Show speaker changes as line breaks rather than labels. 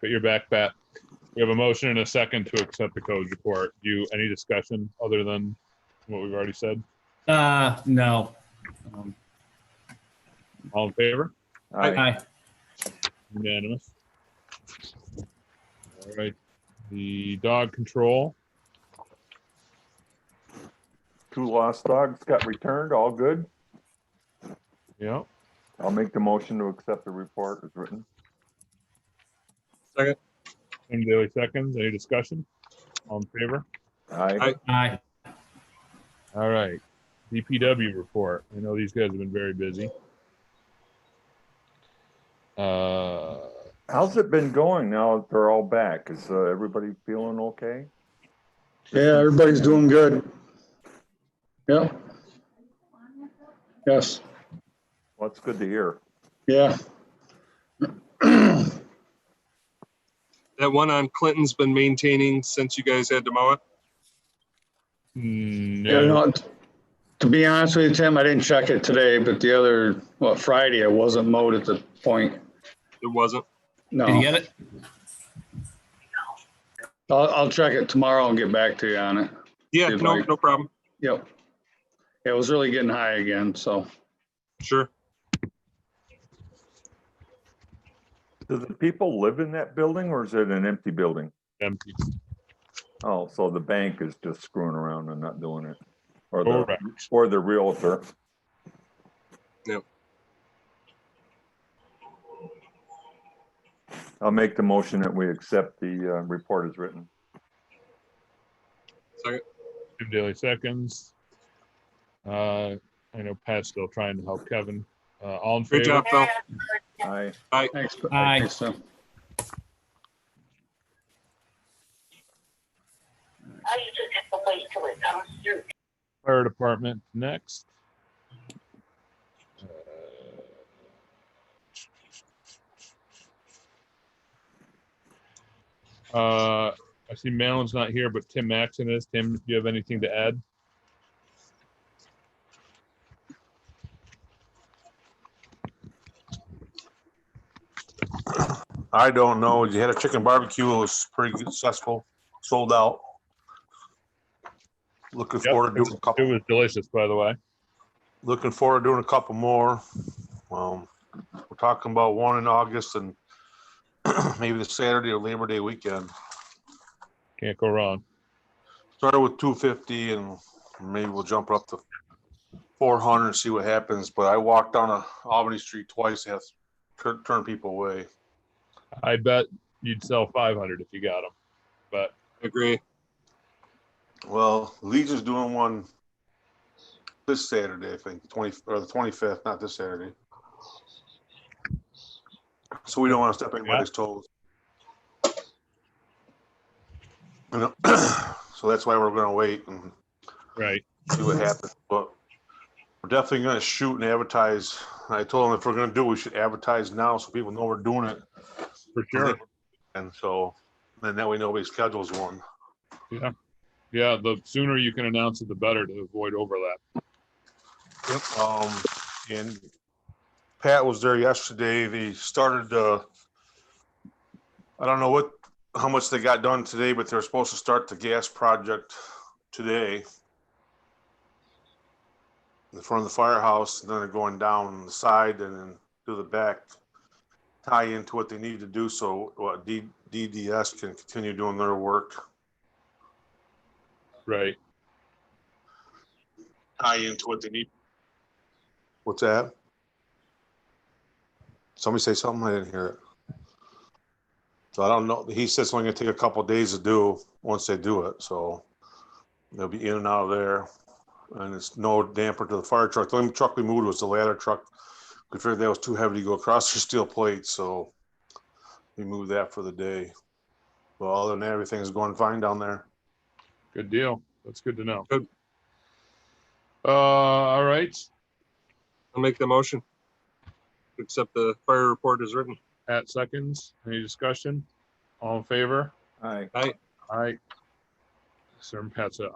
But you're back, Pat. We have a motion and a second to accept the codes report. Do you, any discussion other than what we've already said?
Uh, no. Um,
All in favor?
Aye.
Aye.
Unanimous. All right, the dog control.
Two lost dogs got returned, all good.
Yeah,
I'll make the motion to accept the report as written.
Tim Daly seconds. Any discussion? All in favor?
Aye.
Aye.
Aye.
All right, DPW report. I know these guys have been very busy. Uh,
How's it been going now that they're all back? Is uh, everybody feeling okay?
Yeah, everybody's doing good. Yeah. Yes,
Well, that's good to hear.
yeah.
That one on Clinton's been maintaining since you guys had to mow it.
Yeah,
No,
no, to be honest with you, Tim, I didn't check it today, but the other, well, Friday, I wasn't mowed at the point.
It wasn't.
No,
Did you get it?
I'll, I'll check it tomorrow and get back to you on it.
Yeah,
Good
no,
night.
no problem.
Yep. Yeah, It was really getting high again, so.
Sure.
Do the people live in that building or is it an empty building?
empty.
Oh, so the bank is just screwing around and not doing it? Or the,
Correct.
or the realtor?
Yep.
I'll make the motion that we accept the uh, report as written.
Second.
Tim Daly seconds. Uh, I know Pat's still trying to help Kevin. Uh, all in
Great
favor?
job, Phil.
Aye.
Thanks.
Aye.
Thanks, Tim.
I used to have to wait till it comes through.
Fire department next. Uh, Uh, I see Malin's not here, but Tim Maxon is. Tim, do you have anything to add?
I don't know. You had a chicken barbecue. It was pretty successful, sold out. Looking
Yep,
forward to doing a
It
couple,
was delicious, by the way.
looking forward to doing a couple more. Um, we're talking about one in August and maybe the Saturday or Labor Day weekend.
Can't go wrong.
Started with two fifty and maybe we'll jump up to four hundred and see what happens. But I walked down a Albany Street twice, had to tur- turn people away.
I bet you'd sell 500 if you got them, but
Agree.
Well, Legion's doing one this Saturday, I think, twenty, or the twenty-fifth, not this Saturday. So we don't want to step anybody's toes. You know, So that's why we're gonna wait and
right.
see what happens, but we're definitely gonna shoot and advertise. I told him if we're gonna do, it, we should advertise now so people know we're doing it.
For sure.
And so, then that way nobody schedules one.
Yeah, the sooner you can announce it, the better to avoid overlap.
Yep, um, and Pat was there yesterday. They started, uh, I don't know what, how much they got done today, but they're supposed to start the gas project today. In front of the firehouse, and then they're going down the side and then to the back. Tie into what they need to do so, what, D, DDS can continue doing their work.
Right.
tie into what they need. What's that? Somebody say something, I didn't hear it. So I don't know, he said it's only gonna take a couple days to do, once they do it, so they'll be in and out of there. And it's no damper to the fire truck, the only truck we moved was the ladder truck. We figured that was too heavy to go across the steel plate, so we moved that for the day. Well, other than that, everything's going fine down there.
Good deal. That's good to know.
Good.
Uh, all right.
I'll make the motion. Accept the fire report as written.
Pat seconds. Any discussion? All in favor?
Aye.
Aye. Sir Pat's a